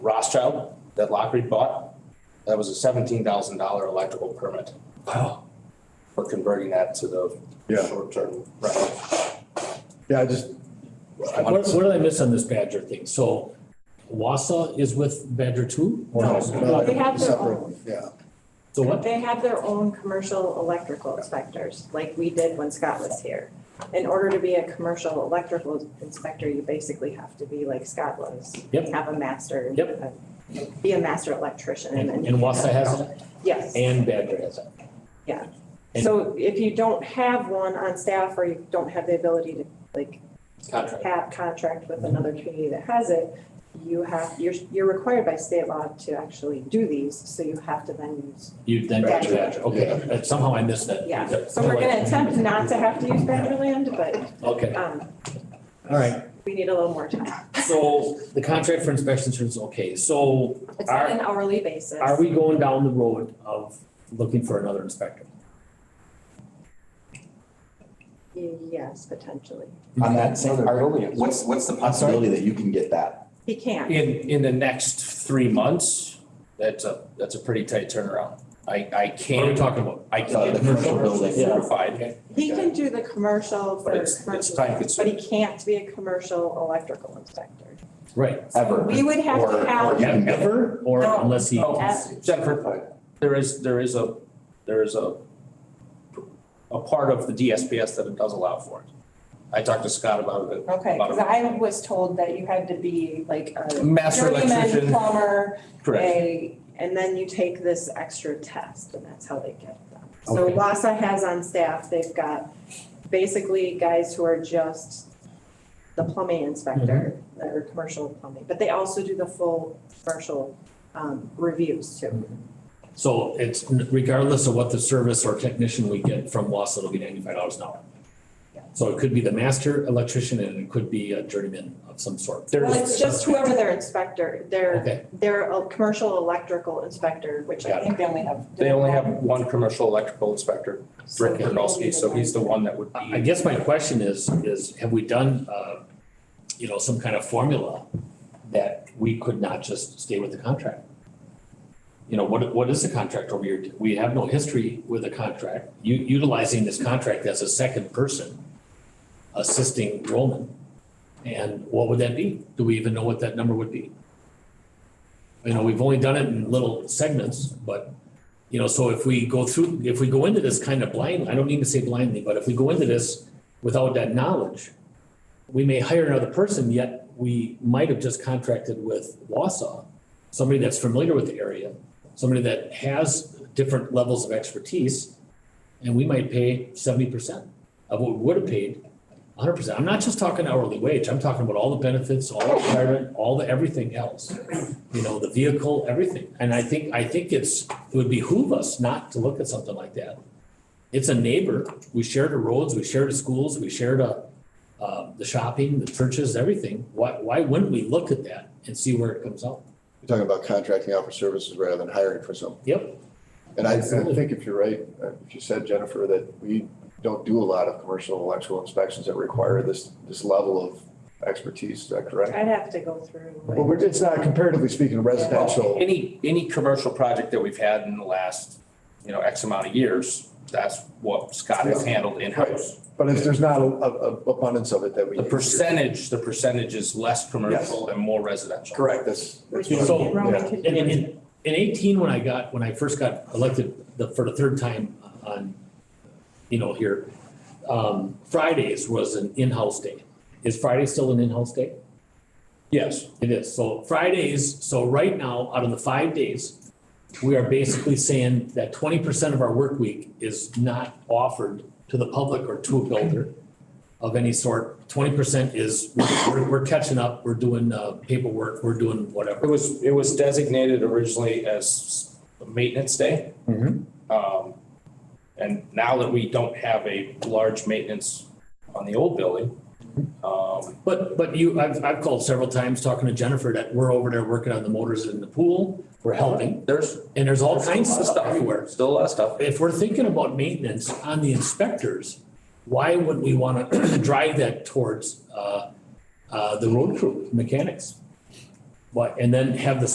Rothschild that Lockreed bought. That was a seventeen thousand dollar electrical permit. Wow. For converting that to the Yeah. short-term rental. Yeah, I just, What, what did I miss on this Badger thing? So Wassa is with Badger too? or No. No. They have their separate own, one, yeah. So what? they have their own commercial electrical inspectors, like we did when Scott was here. In order to be a commercial electrical inspector, you basically have to be like Scott was. Yep. Have a master. Yep. uh, Be a master electrician and And then. and Wassa has it Yes. and Badger has it. and- So if you don't have one on staff or you don't have the ability to like Contract. have contract with another community that has it, you have, you're, you're required by state law to actually do these, so you have to then use. You then go to Badger. Badger. Okay, uh, somehow I missed that. Yeah. So we're gonna attempt not to have to use Badger land, but, Okay, um, all right. we need a little more time. So the contract for inspection service, okay. So It's Are- on an hourly basis. are we going down the road of looking for another inspector? Yes, potentially. On that same, Our only- what's, what's the possibility that you can get that? He can. In, in the next three months, that's a, that's a pretty tight turnaround. I, I What are we can't, talking about? I Uh, can't the get commercial commercial building building. certified. He can do the commercial for But it's- it's commercial, time but he can't be a commercial electrical inspector. Right. Ever. We would have Or- to or have. you can get that? Ever or No. unless he. Oh, Jennifer, there is, there is a, there is a, a part of the DSPS that it does allow for it. I talked to Scott about it. Okay, because I was told that you had to be like a Master journeyman electrician, plumber, correct. a, and then you take this extra test, and that's how they get them. So Okay. Wassa has on staff, they've got basically guys who are just the plumbing inspector, or commercial plumbing, but they also do the full commercial um, reviews too. So it's regardless of what the service or technician we get from Wausau, it'll be ninety-five dollars an hour. Yeah. So it could be the master electrician and it could be a journeyman of some sort. Well, it's just whoever their inspector, their, Okay, their uh, commercial electrical inspector, which I Got it. think they only have. They only have one commercial electrical inspector, So Rick Kardowski, so he's the one that would I I be. guess my question is, is have we done, uh, you know, some kind of formula that we could not just stay with the contract? You know, what, what is the contract over here? We have no history with a contract, u- utilizing this contract as a second person assisting Roman. And what would that be? Do we even know what that number would be? You know, we've only done it in little segments, but you know, so if we go through, if we go into this kind of blind, I don't mean to say blindly, but if we go into this without that knowledge, we may hire another person, yet we might have just contracted with Wausau, somebody that's familiar with the area, somebody that has different levels of expertise, and we might pay seventy percent of what we would have paid, hundred percent. I'm not just talking hourly wage, I'm talking about all the benefits, all the retirement, all the everything else. You know, the vehicle, everything. And I think, I think it's, it would behoove us not to look at something like that. It's a neighbor. We share the roads, we share the schools, we share the, uh, the shopping, the churches, everything. Why, why wouldn't we look at that and see where it comes out? You're talking about contracting out for services rather than hiring for something. Yep. And I, I Absolutely. think if you're right, uh, if you said, Jennifer, that we don't do a lot of commercial electrical inspections that require this, this level of expertise, is that correct? I'd have to go through. Well, we're- it's not comparatively speaking residential. Any, any commercial project that we've had in the last, you know, X amount of years, that's what Scott has handled in-house. But if there's not a, a a abundance of it that we. The percentage, the percentage is less commercial and more residential. Correct, that's. that's what Which I'm- So- Roman yeah. could And in, do. in eighteen, when I got, when I first got elected the, for the third time on, you know, here, um, Fridays was an in-house day. Is Friday still an in-house day? Yes. It is. So Fridays, so right now, out of the five days, we are basically saying that twenty percent of our work week is not offered to the public or to a builder of any sort. Twenty percent is, we're, we're catching up, we're doing uh, paperwork, we're doing It whatever. was, it was designated originally as a maintenance day. Mhm. Um, and now that we don't have a large maintenance on the old building, um, But, but you, I've, I've called several times talking to Jennifer that we're over there working on the motors in the pool, we're helping. there's And there's all kinds of stuff everywhere. still a lot of stuff. if we're thinking about maintenance on the inspectors, why would we want to drive that towards uh, uh, the road crew mechanics? But, and then have the